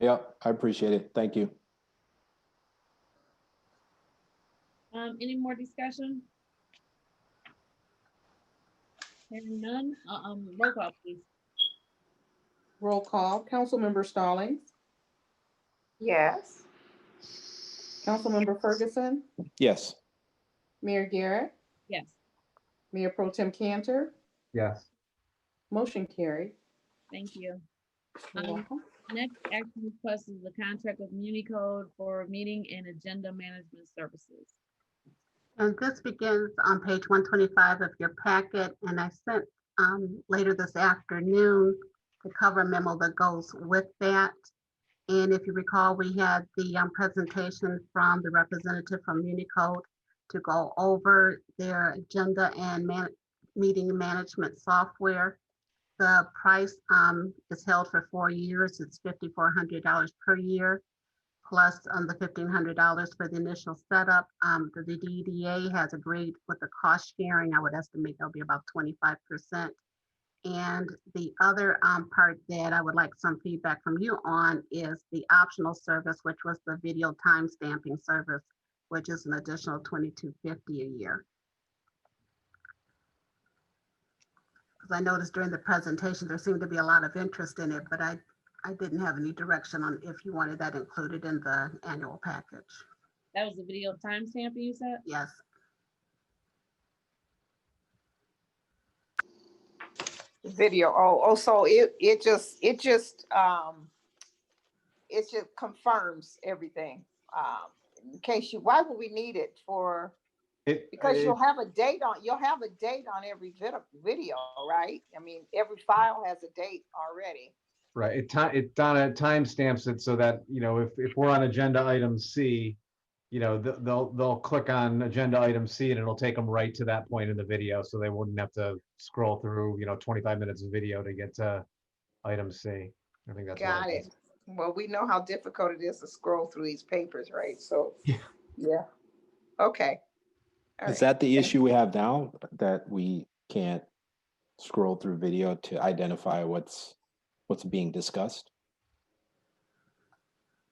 Yeah, I appreciate it. Thank you. Um, any more discussion? Hearing none, uh, um, roll call please. Roll call, Councilmember Stallings, Yes. Councilmember Ferguson, Yes. Mayor Garrett, Yes, Mayor Pro Tem Cantor, Yes, motion carried. thank you. You're Um, welcome. Next action request is the contract with Municode for meeting and agenda management services. And this begins on page one twenty-five of your packet, and I sent um later this afternoon the cover memo that goes with that. And if you recall, we had the um, presentation from the representative from Unicode to go over their agenda and man, meeting management software. The price um is held for four years. It's fifty-four hundred dollars per year plus um, the fifteen hundred dollars for the initial setup. Um, the, the DDA has agreed with the cost sharing. I would estimate that'll be about twenty-five percent. And the other um, part that I would like some feedback from you on is the optional service, which was the video timestamping service, which is an additional twenty-two fifty a year. Because I noticed during the presentation, there seemed to be a lot of interest in it, but I I didn't have any direction on if you wanted that included in the annual package. That was the video timestamp you said? Yes, Video, oh, oh, so it, it just, it just, um, it just confirms everything. Um, in case you, why would we need it for, it, because you'll it- have a date on, you'll have a date on every vid- video, right? I mean, every file has a date already. right, it ti- it Donna timestamps it so that, you know, if, if we're on agenda item C, you know, th- they'll, they'll click on agenda item C and it'll take them right to that point in the video, so they wouldn't have to scroll through, you know, twenty-five minutes of video to get to item C. I think that's. what Got it. is. Well, we know how difficult it is to scroll through these papers, right? So, Yeah. yeah, okay. All Is right. that the issue we have now that we can't scroll through video to identify what's what's being discussed?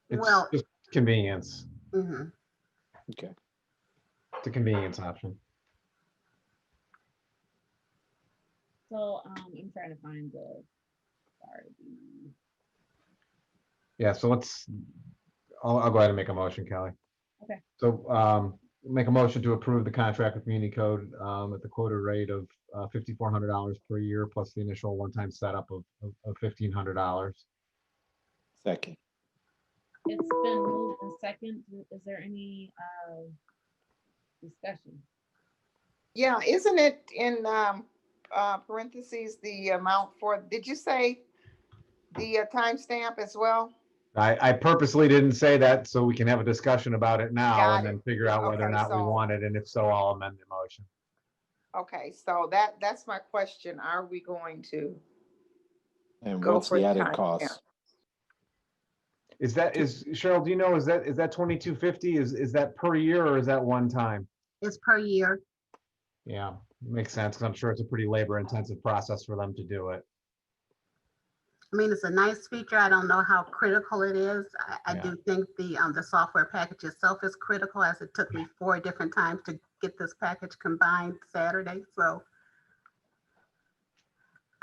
It's Well- just Convenience, mhm. it's a convenience option. So, um, I'm trying to find the, sorry. the- Yeah, so let's, I'll, I'll go ahead and make a motion, Kelly. Okay. So, um, make a motion to approve the contract with MuniCode, um, at the quoted rate of, uh, fifty-four hundred dollars per year plus the initial one-time setup of, of- of fifteen hundred dollars. Second. It's been moved in second. Is there any, uh, discussion? Yeah, isn't it in um, uh, parentheses, the amount for, did you say the uh, timestamp as well? I, I purposely didn't say that so we can have a discussion about it now Got and it. then figure out whether or Okay, not we so- want it, and if so, I'll amend the motion. Okay, so that, that's my question. Are we going to, And Go what's for the the added time, yeah. cost? Is that, is, Cheryl, do you know, is that, is that twenty-two fifty, is, is that per year or is that one time? It's per year. Yeah, makes sense, 'cause I'm sure it's a pretty labor-intensive process for them to do it. I mean, it's a nice feature. I don't know how critical it is. I, I Yeah. do think the, um, the software package itself is critical as it took me four different times to get this package combined Saturday, so.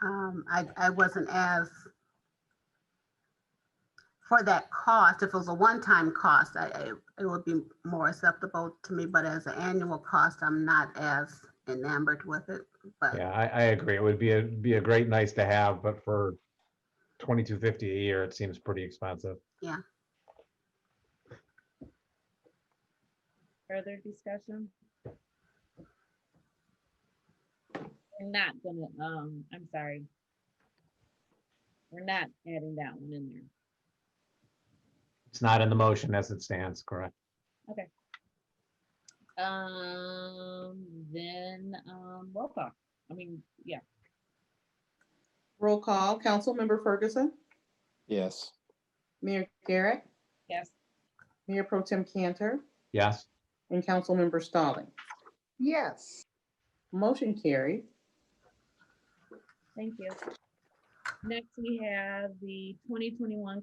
Um, I, I wasn't as for that cost, if it was a one-time cost, I, I, it would be more acceptable to me, but as an annual cost, I'm not as enamored with it, but. Yeah, I, I agree. It would be a, be a great nice to have, but for twenty-two fifty a year, it seems pretty expensive. Further discussion? We're not gonna, um, I'm sorry. We're not adding that one in there. It's not in the motion as it stands, correct? Um, then, um, roll call. I mean, yeah, Roll call, Councilmember Ferguson, Yes. Mayor Garrett, yes, Mayor Pro Tem Cantor, Yes, and Councilmember Stallings. yes, Motion carried. thank you. Next, we have the twenty twenty-one